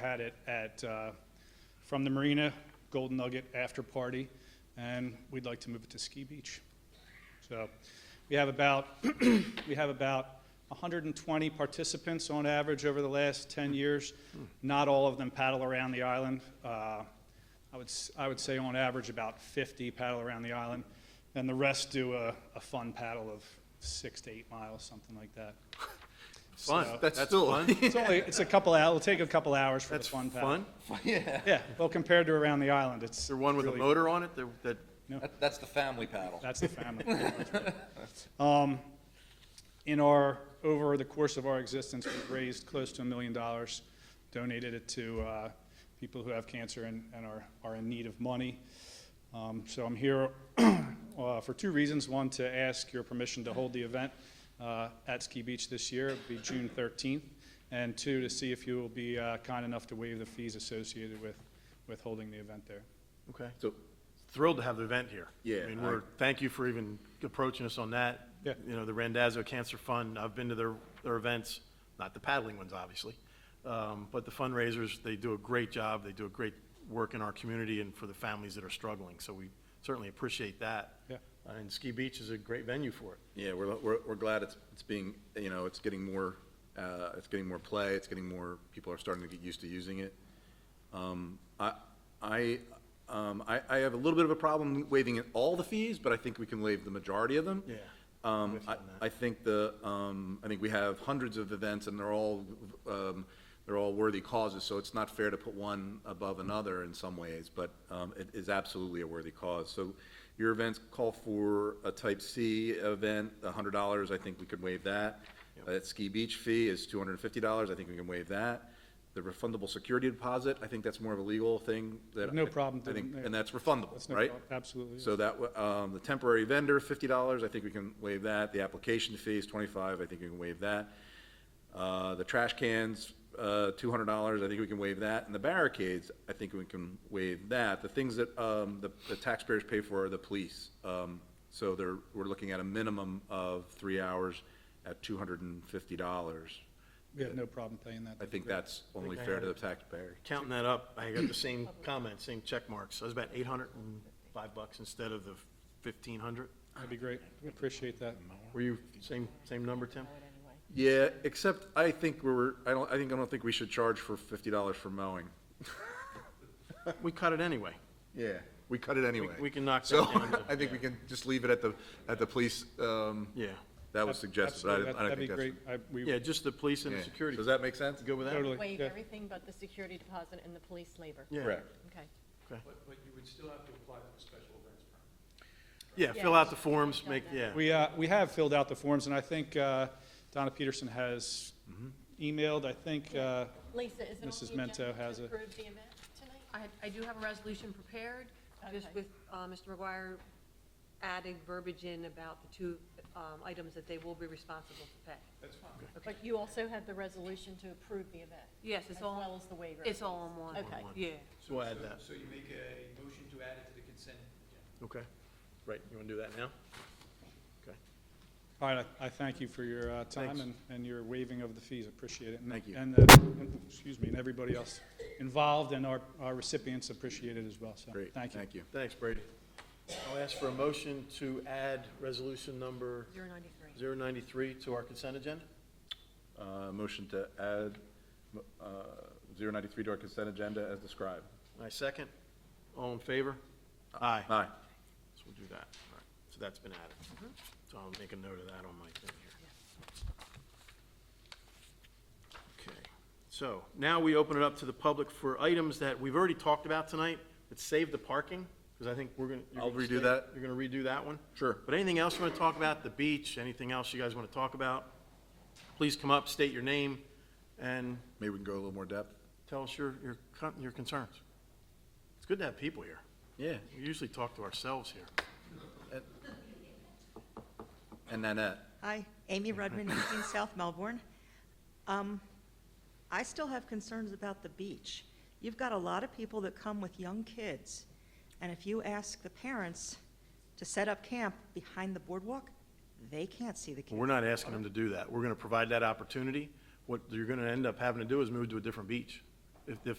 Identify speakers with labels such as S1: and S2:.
S1: had it at, uh, from the marina, Golden Nugget after party, and we'd like to move it to Ski Beach. So we have about, we have about 120 participants on average over the last 10 years. Not all of them paddle around the island. Uh, I would, s- I would say on average about 50 paddle around the island, and the rest do a, a fun paddle of six to eight miles, something like that.
S2: Fun.
S1: So-
S2: That's,
S3: That's
S2: still
S3: fun.
S1: It's only, it's a couple, hou- it'll take a couple hours for the
S2: That's
S1: fun
S2: fun.
S1: paddle. Yeah, well, compared to around the island, it's.
S2: Is there one with a
S1: really-
S2: motor on it? That, that
S3: That- That's the family paddle.
S1: That's the family. Um, In our, over the course of our existence, we've raised close to a million dollars, donated it to uh, people who have cancer and and are, are in need of money. Um, So I'm here uh, for two reasons. One, to ask your permission to hold the event uh, at Ski Beach this year, it'll be June 13th. And two, to see if you will be uh, kind enough to waive the fees associated with, with holding the event there.
S2: okay.
S4: So,
S2: Thrilled to have the event here.
S4: Yeah,
S2: I mean,
S4: I-
S2: we're thank you for even approaching us on that.
S1: Yeah.
S2: You know, the Randazzo Cancer Fund. I've been to their their events, not the paddling ones, obviously, um, but the fundraisers. They do a great job. They do a great work in our community and for the families that are struggling. So we certainly appreciate that. Uh,
S1: Yeah.
S2: And Ski Beach is a great venue for it.
S4: yeah, we're, we're, we're glad it's, it's being, you know, it's getting more, uh, it's getting more play, it's getting more, people are starting to get used to using it. Um, I, I, um, I, I have a little bit of a problem waiving it- all the fees, but I think we can waive the majority of them.
S2: Yeah, I'm
S4: Um,
S2: with you
S4: I,
S2: on that.
S4: I think the, um, I think we have hundreds of events and they're all, um, they're all worthy causes, so it's not fair to put one above another in some ways, but, um, it is absolutely a worthy cause. So your events call for a type C event, a hundred dollars, I think we could waive that. That ski beach fee is two hundred and fifty dollars, I think we can waive that. The refundable security deposit, I think that's more of a legal thing that.
S1: No
S4: I-
S1: problem
S4: I think,
S1: doing that.
S4: and that's refundable,
S1: That's no
S4: right?
S1: prob- Absolutely.
S4: So that, wa- um, the temporary vendor, fifty dollars, I think we can waive that. The application fee is twenty-five, I think we can waive that. Uh, the trash cans, uh, two hundred dollars, I think we can waive that. And the barricades, I think we can waive that. The things that, um, the, the taxpayers pay for are the police. Um, so they're, we're looking at a minimum of three hours at two hundred and fifty dollars.
S1: We have no problem paying that.
S4: I think that's only
S2: think I
S4: fair to the
S2: had-
S4: taxpayer.
S2: Counting that up, I got the same comment, same check marks. So it was about eight hundred and five bucks instead of the fifteen hundred.
S1: That'd be great. We Appreciate that.
S2: Were you same, same number, Tim?
S4: Yeah, except I think we're, I don't, I think, I don't think we should charge for fifty dollars for mowing.
S2: We cut it anyway.
S4: Yeah, we cut it anyway.
S2: we can knock that
S4: So,
S2: down to-
S4: I think we can just leave it at the, at the police, um,
S2: Yeah.
S4: that was suggested, but I
S1: Absolutely.
S4: didn't- I don't
S1: That'd
S4: think
S1: be
S4: that's.
S1: great. I,
S2: Yeah,
S1: we,
S2: just the police and
S4: yeah.
S2: the security.
S4: Does that make sense?
S2: You Good with that?
S1: Totally.
S5: Waive
S1: Yeah.
S5: everything but the security deposit and the police labor.
S2: Yeah.
S4: Correct.
S5: Okay.
S6: But, but you would still have to apply for the special events permit.
S2: Yeah,
S5: Yeah.
S2: fill out the forms, make, yeah.
S1: we, uh, we have filled out the forms and I think, uh, Donna Peterson has
S4: Mm-hmm.
S1: emailed, I think, uh,
S5: Lisa, is it on
S1: Mrs.
S5: the agenda
S1: Mento has
S5: to
S1: a-
S5: approve the event tonight?
S7: I, I do have a resolution prepared, just
S5: Okay.
S7: with, uh, Mr. McGuire added verbiage in about the two, um, items that they will be responsible to pay.
S5: But you also have the resolution to approve the event,
S7: Yes, it's
S5: as well
S7: all,
S5: as the waiver.
S7: it's all on one.
S5: Okay.
S7: Yeah.
S2: So we'll add that,
S6: So you make a motion to add it to the consent agenda.
S2: okay? Right, you want to do that now? Okay.
S1: all right, I, I thank you for your, uh, time
S2: Thanks.
S1: and, and your waiving of the fees. Appreciate it. And-
S4: Thank you.
S1: And, uh, and- excuse me, and everybody else involved and our, our recipients appreciate it as well. So,
S4: Great,
S1: thank you.
S4: thank you.
S2: Thanks, Brady. I'll ask for a motion to add resolution number
S7: Zero ninety-three.
S2: 093 to our consent agenda?
S4: Uh, motion to add, uh, zero ninety-three to our consent agenda as described.
S2: My second. All in favor? Aye.
S4: Aye.
S2: So we'll do that. All right. So that's been added. So I'll make a note of that on my thing here. Okay. So now we open it up to the public for items that we've already talked about tonight, but save the parking, because I think we're gonna. you're
S4: I'll
S2: gonna
S4: redo
S2: stay-
S4: that.
S2: You're gonna redo that one?
S4: Sure.
S2: But anything else you want to talk about, the beach, anything else you guys want to talk about, please come up, state your name, and
S4: Maybe we can go a little more depth.
S2: tell us your, your, con- your concerns. It's good to have people here.
S4: Yeah.
S2: We usually talk to ourselves here.
S4: And Nanette,
S8: Hi, Amy Rudman, 18 South Melbourne. Um, I still have concerns about the beach. You've got a lot of people that come with young kids, and if you ask the parents to set up camp behind the boardwalk, they can't see the kids.
S2: We're not asking them to do that. We're gonna provide that opportunity. What you're gonna end up having to do is move to a different beach. If, if